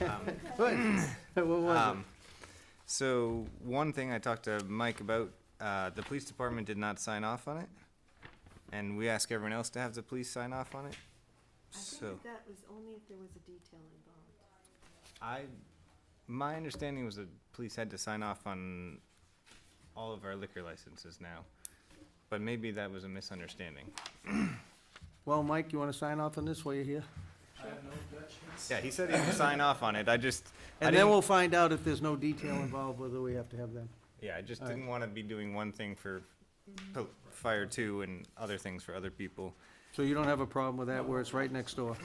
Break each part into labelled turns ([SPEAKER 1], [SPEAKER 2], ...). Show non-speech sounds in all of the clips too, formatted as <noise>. [SPEAKER 1] <clears throat> What was it?
[SPEAKER 2] Um, so one thing I talked to Mike about, uh, the police department did not sign off on it, and we ask everyone else to have the police sign off on it.
[SPEAKER 3] I
[SPEAKER 2] So
[SPEAKER 3] think that that was only if there was a detail involved.
[SPEAKER 2] I, my understanding was that police had to sign off on all of our liquor licenses now, but maybe that was a misunderstanding.
[SPEAKER 1] Well, Mike, you want to sign off on this while you're here?
[SPEAKER 2] Yeah, he said he would sign off on it. I just, I
[SPEAKER 1] And then
[SPEAKER 2] didn't-
[SPEAKER 1] we'll find out if there's no detail involved, whether we have to have them.
[SPEAKER 2] yeah, I just
[SPEAKER 1] All right.
[SPEAKER 2] didn't want to be doing one thing for po- fire two and other things for other people.
[SPEAKER 1] So you don't have a problem with that, where it's right next door?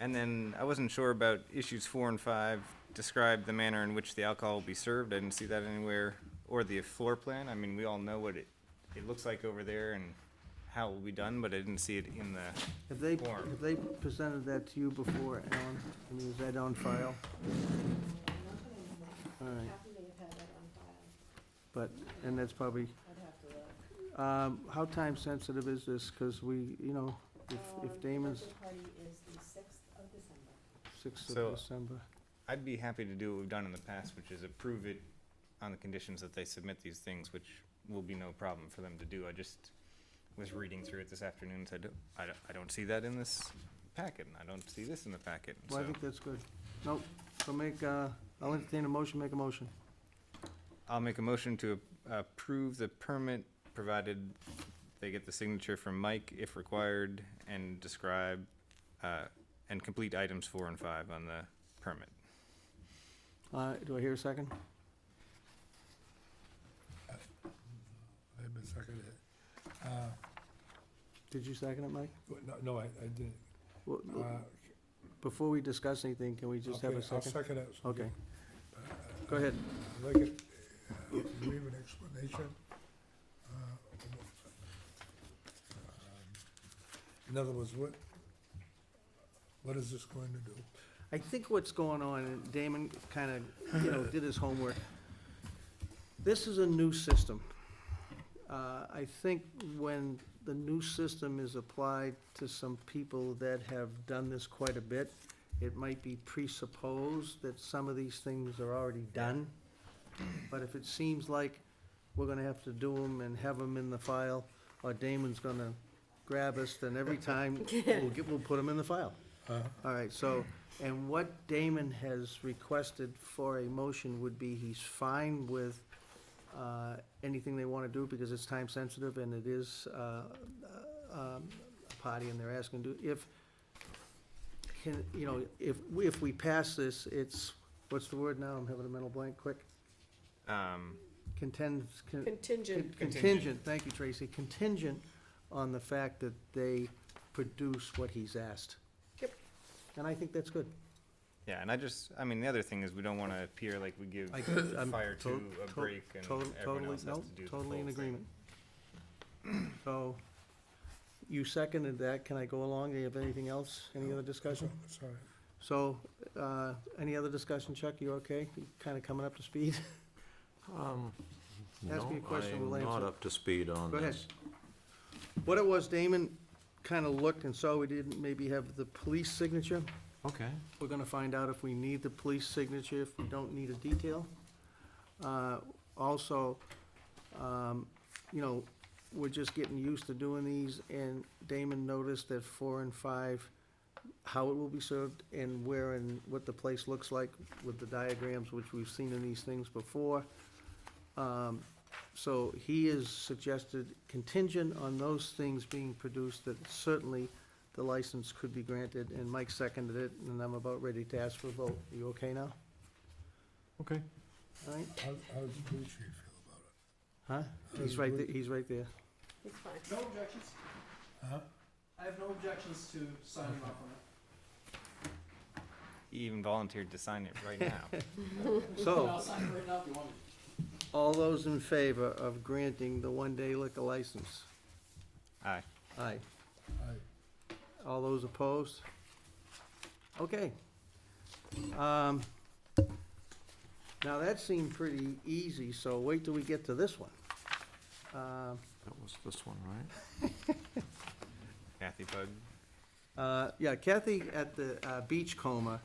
[SPEAKER 2] And then I wasn't sure about issues four and five, describe the manner in which the alcohol will be served, I didn't see that anywhere, or the floor plan, I mean, we all know what it, it looks like over there and how it will be done, but I didn't see it in the,
[SPEAKER 1] Have they,
[SPEAKER 2] Form.
[SPEAKER 1] have they presented that to you before, Alan? I mean, is that on file?
[SPEAKER 3] I'm not gonna remember.
[SPEAKER 1] All right,
[SPEAKER 3] Kathy may have had that on file.
[SPEAKER 1] but, and that's probably,
[SPEAKER 3] I'd have to look.
[SPEAKER 1] um, how time sensitive is this? Because we, you know, if,
[SPEAKER 3] Um,
[SPEAKER 1] if Damon's
[SPEAKER 3] Birthday party is the sixth of December.
[SPEAKER 1] sixth
[SPEAKER 2] So-
[SPEAKER 1] of December.
[SPEAKER 2] I'd be happy to do what we've done in the past, which is approve it on the conditions that they submit these things, which will be no problem for them to do, I just was reading through it this afternoon, and said, I don't, I don't see that in this packet, and I don't see this in the packet,
[SPEAKER 1] Well, I
[SPEAKER 2] so-
[SPEAKER 1] think that's good. Nope, so make, uh, I'll entertain a motion, make a motion.
[SPEAKER 2] I'll make a motion to a- approve the permit, provided they get the signature from Mike if required, and describe, uh, and complete items four and five on the permit.
[SPEAKER 1] Uh, do I hear a second?
[SPEAKER 4] I've been seconded. Uh,
[SPEAKER 1] Did you second it, Mike?
[SPEAKER 4] w- Uh, No, no, I, I didn't.
[SPEAKER 1] Well,
[SPEAKER 4] Uh,
[SPEAKER 1] l- Before we discuss anything, can we just have
[SPEAKER 4] okay,
[SPEAKER 1] a
[SPEAKER 4] I'll
[SPEAKER 1] second?
[SPEAKER 4] second it. so
[SPEAKER 1] Okay,
[SPEAKER 4] we- uh,
[SPEAKER 1] go ahead.
[SPEAKER 4] I'd like it, uh, we have an explanation. uh, um, In other words, what, what is this going to do?
[SPEAKER 1] I think what's going on, and Damon kind of, you know, did his homework. This is a new system. Uh, I think when the new system is applied to some people that have done this quite a bit, it might be presupposed that some of these things are already done. But if it seems like we're gonna have to do them and have them in the file, or Damon's gonna grab us, then every time, we'll get, we'll put them in the file.
[SPEAKER 4] Uh,
[SPEAKER 1] All right, so, and what Damon has requested for a motion would be he's fine with uh, anything they want to do because it's time sensitive and it is uh, um, a party and they're asking to, if, can, you know, if, if we pass this, it's, what's the word now? I'm having a mental blank, quick.
[SPEAKER 2] Um,
[SPEAKER 1] Contends, con-
[SPEAKER 3] Contingent.
[SPEAKER 1] Contingent, thank you, Tracy, contingent on the fact that they produce what he's asked.
[SPEAKER 3] Yep.
[SPEAKER 1] And I think that's good.
[SPEAKER 2] yeah, and I just, I mean, the other thing is, we don't wanna appear like we give
[SPEAKER 1] I- I'm
[SPEAKER 2] fire
[SPEAKER 1] to-
[SPEAKER 2] two a
[SPEAKER 1] to-
[SPEAKER 2] break and
[SPEAKER 1] Tot-
[SPEAKER 2] everyone
[SPEAKER 1] Totally,
[SPEAKER 2] else has
[SPEAKER 1] no,
[SPEAKER 2] to do the full
[SPEAKER 1] totally in
[SPEAKER 2] thing.
[SPEAKER 1] agreement. <clears throat> So, you seconded that, can I go along, do you have anything else, any other discussion?
[SPEAKER 4] Sorry.
[SPEAKER 1] So, uh, any other discussion, Chuck, you okay, you kinda coming up to speed?
[SPEAKER 5] Um,
[SPEAKER 1] Ask me a
[SPEAKER 5] no,
[SPEAKER 1] question,
[SPEAKER 5] I'm
[SPEAKER 1] we'll
[SPEAKER 5] not
[SPEAKER 1] answer.
[SPEAKER 5] up to speed on
[SPEAKER 1] Go ahead.
[SPEAKER 5] this.
[SPEAKER 1] What it was, Damon kinda looked and saw we didn't maybe have the police signature,
[SPEAKER 5] Okay.
[SPEAKER 1] We're gonna find out if we need the police signature, if we don't need a detail. Uh, Also, um, you know, we're just getting used to doing these, and Damon noticed that four and five, how it will be served and where and what the place looks like with the diagrams, which we've seen in these things before. Um, So he has suggested contingent on those things being produced, that certainly the license could be granted, and Mike seconded it, and I'm about ready to ask for a vote. Are you okay now?
[SPEAKER 5] Okay.
[SPEAKER 1] All right?
[SPEAKER 4] How, how does the police chief feel about it?
[SPEAKER 1] Huh? He's right, there- he's right there.
[SPEAKER 3] It's fine.
[SPEAKER 6] No objections.
[SPEAKER 4] Huh?
[SPEAKER 6] I have no objections to signing off on it.
[SPEAKER 2] He even volunteered to sign it
[SPEAKER 1] <laughs>
[SPEAKER 2] right now.
[SPEAKER 1] So,
[SPEAKER 6] I'll sign it right now if you want me to.
[SPEAKER 1] all those in favor of granting the one-day liquor license?
[SPEAKER 2] Aye.
[SPEAKER 1] Aye.
[SPEAKER 4] I-
[SPEAKER 1] All those opposed? Okay. Um, Now, that seemed pretty easy, so wait till we get to this one. Um,
[SPEAKER 5] That was this one, right?
[SPEAKER 2] Kathy Bug,
[SPEAKER 1] Uh, Yeah, Kathy at the uh, beach coma